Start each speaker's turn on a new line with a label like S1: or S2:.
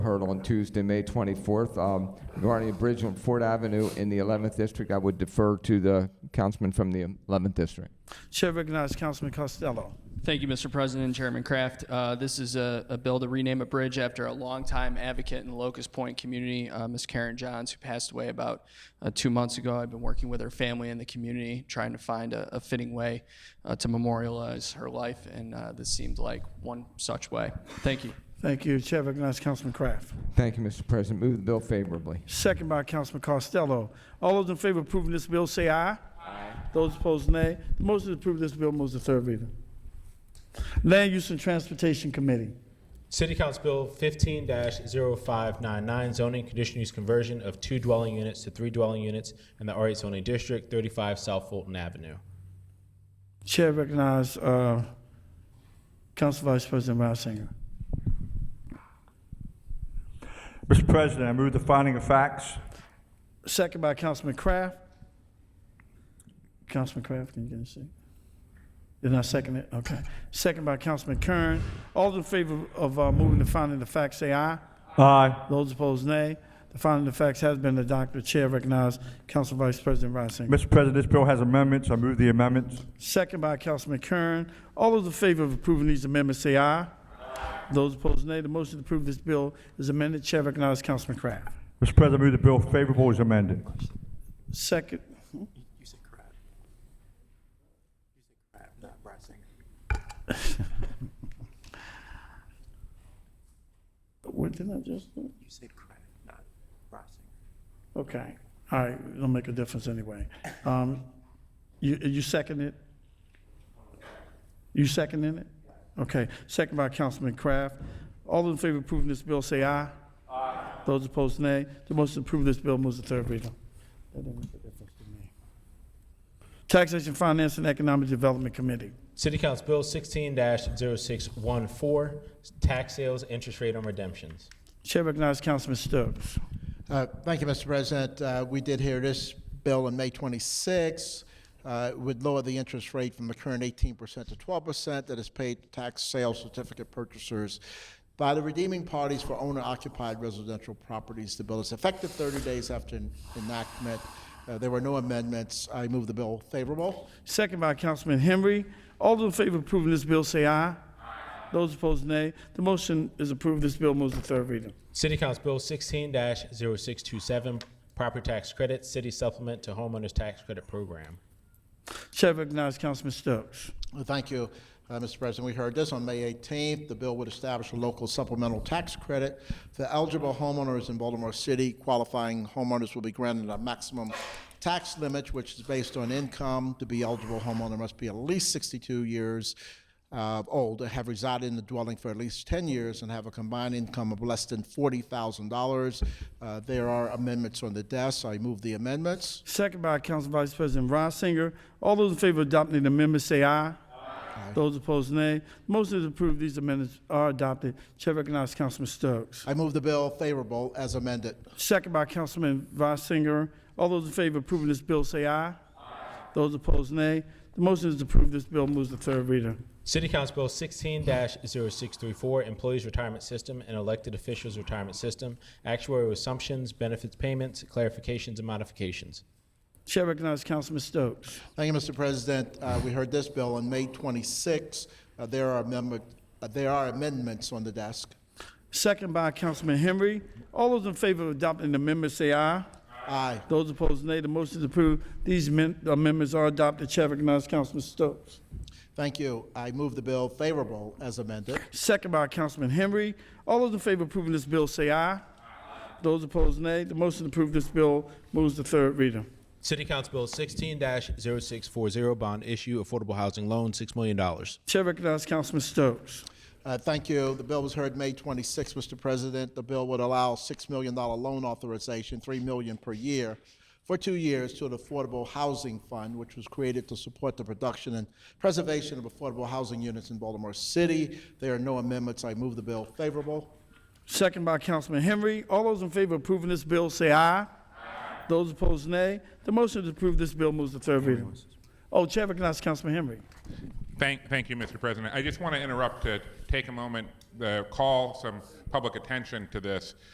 S1: heard on Tuesday, May 24th, um, regarding a bridge on Fort Avenue in the 11th District. I would defer to the councilman from the 11th District.
S2: Chair recognizes Councilman Costello.
S3: Thank you, Mr. President and Chairman Kraft. Uh, This is a a bill to rename a bridge after a longtime advocate in the Locust Point community, uh, Ms. Karen Johns, who passed away about uh, two months ago. I've been working with her family and the community, trying to find a a fitting way uh, to memorialize her life, and uh, this seemed like one such way. Thank you.
S2: Thank you. Chair recognizes Councilman Kraft.
S1: Thank you, Mr. President. Move the bill favorably.
S2: Second by Councilman Costello. All those in favor of approving this bill say aye. Aye. Those opposed, nay. The motion to approve this bill moves to third reader. Land Use and Transportation Committee.
S4: City Council Bill fifteen 599 zoning condition use conversion of two dwelling units to three dwelling units in the R eight zoning district, thirty-five South Fulton Avenue.
S2: Chair recognizes uh, Council Vice President Reisinger.
S5: Mr. President, I move the finding of facts.
S2: Second by Councilman Kraft. Councilman Kraft, can you get a second? Did I second it? Okay. Second by Councilman Kern. All in favor of uh, moving the finding of facts, say aye.
S5: Aye.
S2: Those opposed, nay. The finding of facts has been adopted. Chair recognized Council Vice President Reisinger.
S5: Mr. President, this bill has amendments. I move the amendments.
S2: Second by Councilman Kern. All those in favor of approving these amendments, say aye. Those opposed, nay. The motion to approve this bill is amended. Chair recognizes Councilman Kraft.
S5: Mr. President, I move the bill favorable as amended.
S2: Second.
S6: You said crap. You said crap, not Brasinger.
S2: What did I just do?
S6: You said crap, not Brasinger.
S2: Okay, all right, it'll make a difference anyway. Um, You, you second it? You seconding it? Okay, second by Councilman Kraft. All those in favor of approving this bill, say aye. Aye. Those opposed, nay. The motion to approve this bill moves to third reader. That didn't make a difference to me. Taxation, Finance, and Economic Development Committee.
S4: City Council Bill sixteen 614 tax sales, interest rate on redemptions.
S2: Chair recognizes Councilman Stokes.
S7: Uh, Thank you, Mr. President. Uh, We did hear this bill on May 26. Uh, It would lower the interest rate from the current 18% to 12% that is paid to tax sale certificate purchasers by the redeeming parties for owner-occupied residential properties. The bill is effective 30 days after en- enactment. Uh, There were no amendments. I move the bill favorable.
S2: Second by Councilman Henry. All those in favor of approving this bill, say aye. Those opposed, nay. The motion is approved. This bill moves to third reader.
S4: City Council Bill sixteen 627 property tax credit, city supplement to homeowners tax credit program.
S2: Chair recognizes Councilman Stokes.
S7: Well, Thank you, uh, Mr. President. We heard this on May 18th. The bill would establish a local supplemental tax credit for eligible homeowners in Baltimore City. Qualifying homeowners will be granted a maximum tax limit, which is based on income. To be eligible, homeowner must be at least 62 years uh, old, have resided in the dwelling for at least 10 years, and have a combined income of less than $40,000. Uh, There are amendments on the desk. I move the amendments.
S2: Second by Council Vice President Reisinger. All those in favor of adopting the amendment, say aye. Those opposed, nay. Motion is approved. These amendments are adopted. Chair recognizes Councilman Stokes.
S7: I move the bill favorable as amended.
S2: Second by Councilman Reisinger. All those in favor of approving this bill, say aye. Those opposed, nay. The motion is approved. This bill moves to third reader.
S4: City Council Bill sixteen 634 Employees Retirement System and Elected Officials Retirement System, Actuarial Assumptions, Benefits Payments, Clarifications and Modifications.
S2: Chair recognizes Councilman Stokes.
S7: Thank you, Mr. President. Uh, We heard this bill on May 26. Uh, There are amendment, uh, there are amendments on the desk.
S2: Second by Councilman Henry. All those in favor of adopting the amendment, say aye.
S7: Aye.
S2: Those opposed, nay. The motion is approved. These men- amendments are adopted. Chair recognizes Councilman Stokes.
S7: Thank you. I move the bill favorable as amended.
S2: Second by Councilman Henry. All those in favor of approving this bill, say aye. Those opposed, nay. The motion to approve this bill moves to third reader.
S4: City Council Bill sixteen 640 bond issue, affordable housing loan, six million dollars.
S2: Chair recognizes Councilman Stokes.
S7: Uh, Thank you. The bill was heard May 26, Mr. President. The bill would allow $6 million loan authorization, $3 million per year, for two years to an affordable housing fund, which was created to support the production and preservation of affordable housing units in Baltimore City. There are no amendments. I move the bill favorable.
S2: Second by Councilman Henry. All those in favor of approving this bill, say aye. Those opposed, nay. The motion to approve this bill moves to third reader. Oh, Chair recognizes Councilman Henry.
S8: Thank, thank you, Mr. President. I just want to interrupt to take a moment, uh, call some public attention to this.